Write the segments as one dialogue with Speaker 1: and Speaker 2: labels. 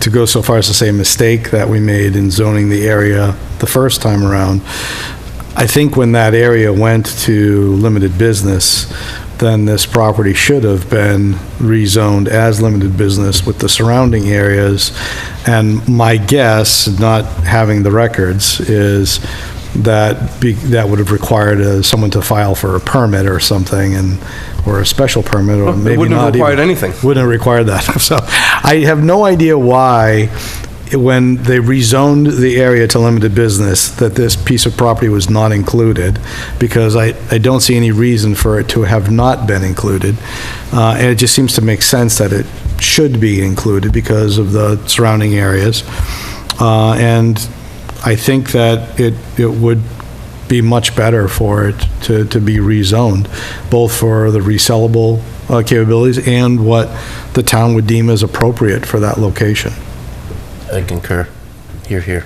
Speaker 1: to go so far as to say mistake that we made in zoning the area the first time around. I think when that area went to limited business, then this property should have been rezoned as limited business with the surrounding areas. And my guess, not having the records, is that, be- that would have required uh, someone to file for a permit or something, and, or a special permit, or
Speaker 2: It
Speaker 1: maybe
Speaker 2: wouldn't
Speaker 1: not
Speaker 2: have
Speaker 1: even-
Speaker 2: required anything.
Speaker 1: Wouldn't have required that. So I have no idea why, when they rezoned the area to limited business, that this piece of property was not included, because I, I don't see any reason for it to have not been included. Uh, And it just seems to make sense that it should be included because of the surrounding areas. Uh, And I think that it, it would be much better for it to, to be rezoned, both for the resellable uh, capabilities and what the town would deem as appropriate for that location.
Speaker 3: I concur. Here, here.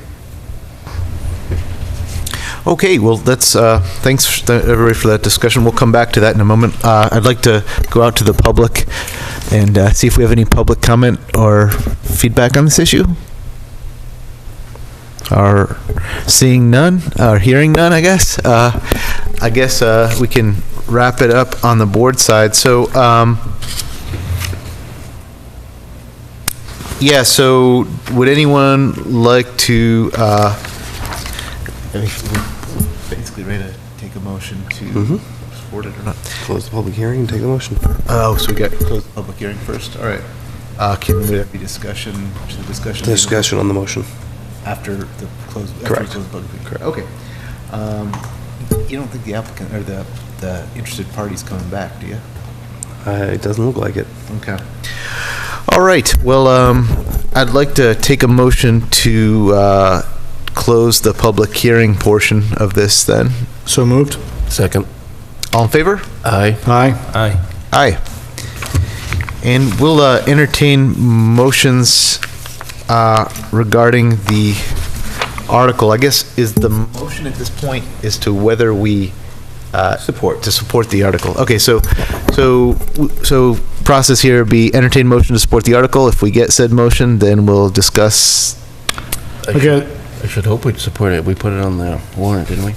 Speaker 4: Okay, well, that's, uh, thanks th- everybody for that discussion. We'll come back to that in a moment. Uh, I'd like to go out to the public and uh, see if we have any public comment or feedback on this issue. Are seeing none, or hearing none, I guess. Uh, I guess uh, we can wrap it up on the board side. So, um, yeah, so would anyone like to uh, basically ready to take a motion to support it or not.
Speaker 3: Close the public hearing and take the motion.
Speaker 4: Mm-hmm. Oh, so we got close the public hearing first, all right. Uh, can we have the discussion, should the discussion? be
Speaker 3: Discussion on the motion.
Speaker 4: After the close, after we
Speaker 3: Correct.
Speaker 4: close the public hearing? Correct. Okay. Um, You don't think the applicant, or the, the interested party's coming back, do you?
Speaker 3: Uh, It doesn't look like it.
Speaker 4: Okay. All right, well, um, I'd like to take a motion to, uh, close the public hearing portion of this then.
Speaker 1: So moved?
Speaker 3: Second.
Speaker 4: All in favor?
Speaker 3: Aye.
Speaker 1: Aye.
Speaker 4: Aye. And we'll uh, entertain motions uh, regarding the article. I guess is the motion at this point is to whether we uh, support to support the article. Okay, so so so process here would be entertain motion to support the article. If we get said motion, then we'll discuss.
Speaker 1: Okay.
Speaker 3: I should hope we'd support it. We put it on the warrant, didn't we?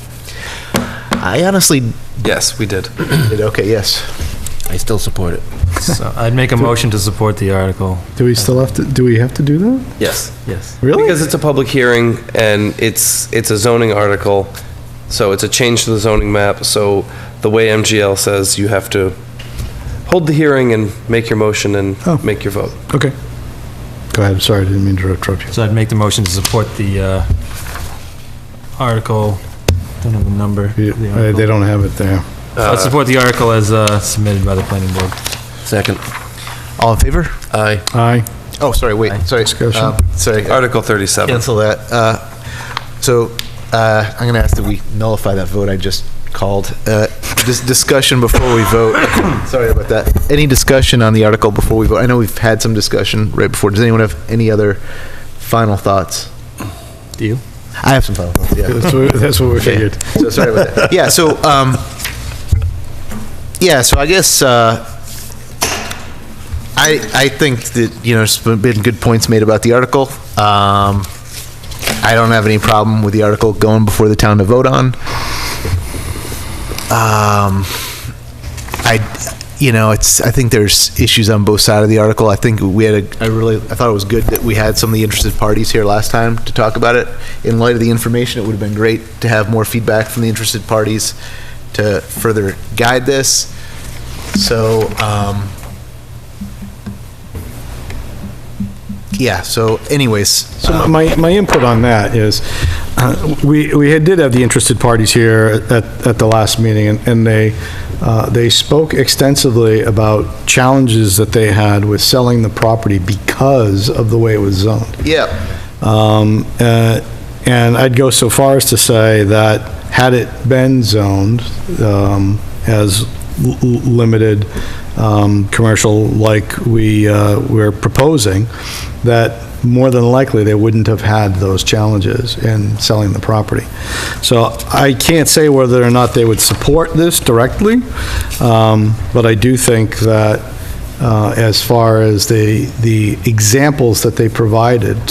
Speaker 4: I honestly
Speaker 5: Yes, we did.
Speaker 4: okay yes.
Speaker 3: I still support it.
Speaker 5: So I'd make a motion to support the article.
Speaker 1: Do we still have to, do we have to do that?
Speaker 5: Yes. Yes.
Speaker 1: Really?
Speaker 5: Because
Speaker 1: Because
Speaker 5: it's
Speaker 3: It's a public hearing and it's, it's a zoning article, so it's a change to the zoning map. So the way MGL says, you have to hold the hearing and make your motion and
Speaker 1: Oh.
Speaker 3: make your vote.
Speaker 1: Okay. Go ahead, sorry, I didn't mean to interrupt you.
Speaker 5: So I'd make the motion to support the uh, article. Don't have a number.
Speaker 1: You-
Speaker 5: The
Speaker 1: uh, They
Speaker 5: article.
Speaker 1: don't have it there.
Speaker 5: I'd support the article as uh, submitted by the planning board.
Speaker 3: Second.
Speaker 4: All in favor?
Speaker 3: Aye.
Speaker 1: Aye.
Speaker 4: Oh, sorry. Wait. Sorry.
Speaker 1: Discussion.
Speaker 4: Uh, sorry.
Speaker 3: Article 37.
Speaker 4: Cancel that. Uh, So uh, I'm going to ask that we nullify that vote I just called. Uh, This discussion before we vote. Sorry about that. Any discussion on the article before we vote? I know we've had some discussion right before. Does anyone have any other final thoughts?
Speaker 5: Do you?
Speaker 4: I have some final thoughts, yeah.
Speaker 1: That's what that's what we figured.
Speaker 4: So sorry about that. Yeah, so, um, yeah, so I guess, uh, I, I think that, you know, there's been good points made about the article. Um, I don't have any problem with the article going before the town to vote on. Um, I, you know, it's, I think there's issues on both sides of the article. I think we had a, I really, I thought it was good that we had some of the interested parties here last time to talk about it. In light of the information, it would have been great to have more feedback from the interested parties to further guide this. So, um, yeah, so anyways, uh,
Speaker 1: So my, my input on that is, uh, we, we had- did have the interested parties here at, at the last meeting, and- and they, uh, they spoke extensively about challenges that they had with selling the property because of the way it was zoned.
Speaker 4: yeah.
Speaker 1: Um, uh, And I'd go so far as to say that had it been zoned um, as l- l- limited um, commercial like we, uh, we're proposing, that more than likely, they wouldn't have had those challenges in selling the property. So I can't say whether or not they would support this directly, um, but I do think that uh, as far as the, the examples that they provided